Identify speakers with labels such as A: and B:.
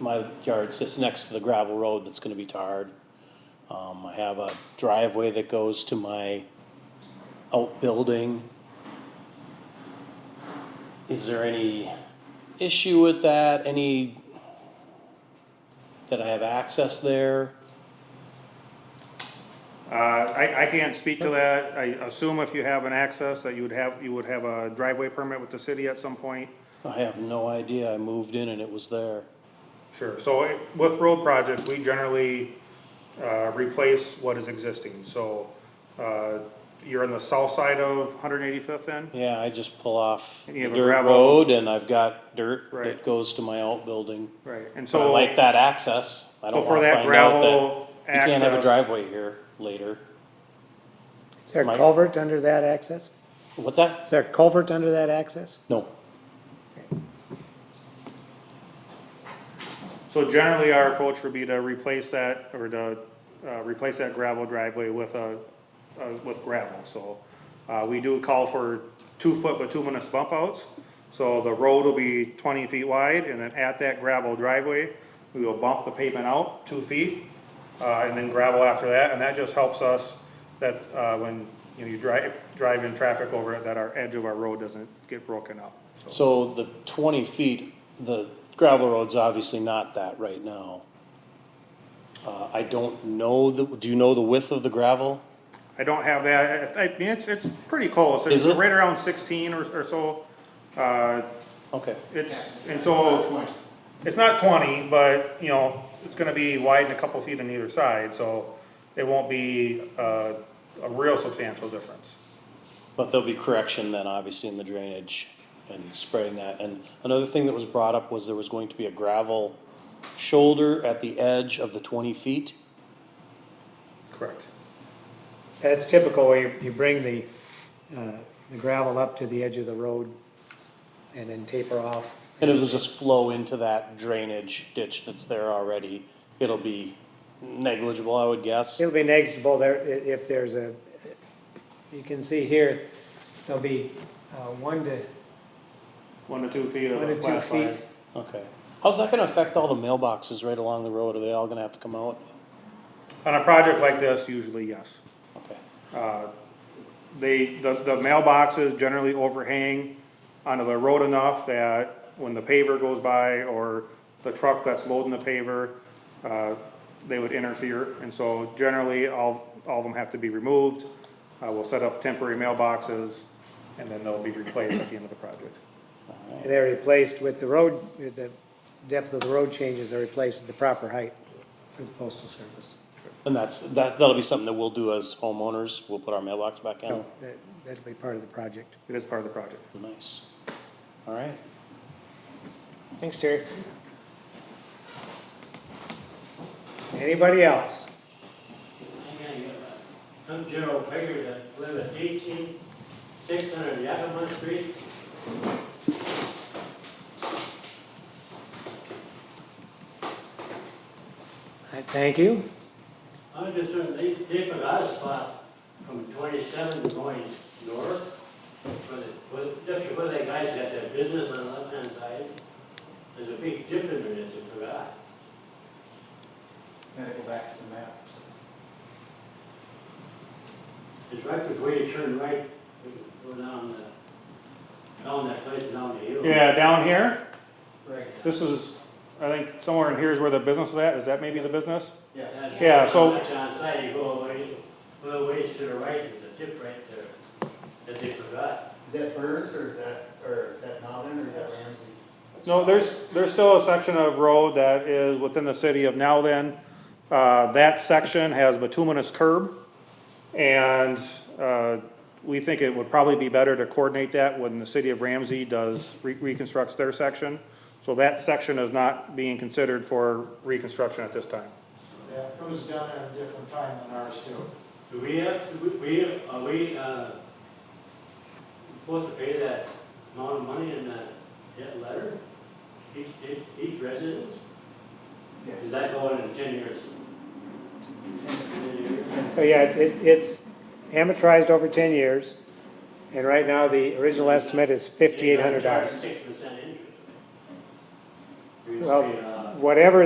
A: my yard sits next to the gravel road that's gonna be tarred. Um, I have a driveway that goes to my outbuilding. Is there any issue with that, any, that I have access there?
B: Uh, I, I can't speak to that. I assume if you have an access, that you would have, you would have a driveway permit with the city at some point.
A: I have no idea, I moved in and it was there.
B: Sure. So eh, with road projects, we generally, uh, replace what is existing, so, uh, you're on the south side of Hundred Eighty-Fifth then?
A: Yeah, I just pull off
B: And you
A: the
B: have a
A: dirt
B: gravel-
A: road and I've got dirt
B: Right.
A: that goes to my outbuilding.
B: Right, and
A: But I
B: so.
A: like that access, I
B: So
A: don't
B: for
A: wanna
B: that
A: find out that
B: gravel
A: you can't have a
B: access,
A: driveway here later.
C: Is there
A: Mike?
C: a culvert under that access?
A: What's that?
C: Is there a culvert under that access?
A: No,
B: so generally our approach would be to replace that, or to, uh, replace that gravel driveway with a, uh, with gravel, so. Uh, we do call for two foot bituminous bump outs, so the road will be twenty feet wide, and then at that gravel driveway, we will bump the pavement out two feet, uh, and then gravel after that, and that just helps us that, uh, when, you know, you drive, drive in traffic over it, that our edge of our road doesn't get broken up.
A: so the twenty feet, the gravel road's obviously not that right now. Uh, I don't know the, do you know the width of the gravel?
B: I don't have that, I, I mean, it's, it's pretty close, it's
A: Is it?
B: right around sixteen or, or so. Uh,
A: Okay,
B: it's, and so, it's not twenty, but, you know, it's gonna be wide and a couple feet on either side, so it won't be, uh, a real substantial difference.
A: but there'll be correction then, obviously, in the drainage and spreading that. And another thing that was brought up was there was going to be a gravel shoulder at the edge of the twenty feet.
B: Correct.
C: That's typical where you, you bring the, uh, the gravel up to the edge of the road and then taper off.
A: And it'll just flow into that drainage ditch that's there already. It'll be negligible, I would guess.
C: It'll be negligible there i- if there's a, you can see here, there'll be, uh, one to,
B: One to two feet of
C: one
B: the
C: to two
B: class
C: feet.
B: five.
A: Okay. How's that gonna affect all the mailboxes right along the road? Are they all gonna have to come out?
B: On a project like this, usually yes.
A: Okay.
B: They, the, the mailboxes generally overhang onto the road enough that when the paver goes by or the truck that's loading the paver, uh, they would interfere. And so generally, all, all of them have to be removed. Uh, we'll set up temporary mailboxes and then they'll be replaced at the end of the project.
C: They're replaced with the road, with the depth of the road changes, they're replaced at the proper height for the postal service.
A: And that's, that, that'll be something that we'll do as homeowners. We'll put our mailbox back in.
C: So that, that'll be part of the project.
B: It is part of the project.
A: Nice. All right.
C: Thanks, Terry. Anybody else?
D: I'm Gerald Pegger, I live at eighteen six hundred Yakima Street.
C: I Thank you.
D: I'm concerned, they, they forgot a spot from twenty-seven going north. Where the, where, just where that guy's got that business on the left-hand side. There's a big dip in there that they forgot.
E: Gotta go back to the map.
D: It's right before you turn right, you go down the, down that place down the hill.
B: Yeah, down here,
E: Right.
B: this is, I think somewhere in here is where the business is at. Is that maybe the business?
E: Yes.
B: Yeah, so-
D: Left-hand side, you go away, go away to the right, there's a dip right there that they forgot.
E: Is that Burns or is that, or is that Nolan or is that Ramsey?
B: No, there's, there's still a section of road that is within the city of Now Then. Uh, that section has bituminous curb. And, uh, we think it would probably be better to coordinate that when the city of Ramsey does, re- reconstructs their section. So that section is not being considered for reconstruction at this time.
F: Yeah, it was done at a different time than ours too.
D: Do we have, to- we- we, are we, uh, supposed to pay that amount of money in that, that letter? Each, each, each resident? Is that going in ten years?
C: So Oh, yeah, it- it- it's amortized over 10 years, and right now, the original estimate is $5,800.
D: Six percent interest. We used to
C: Well-
D: pay, uh,
C: whatever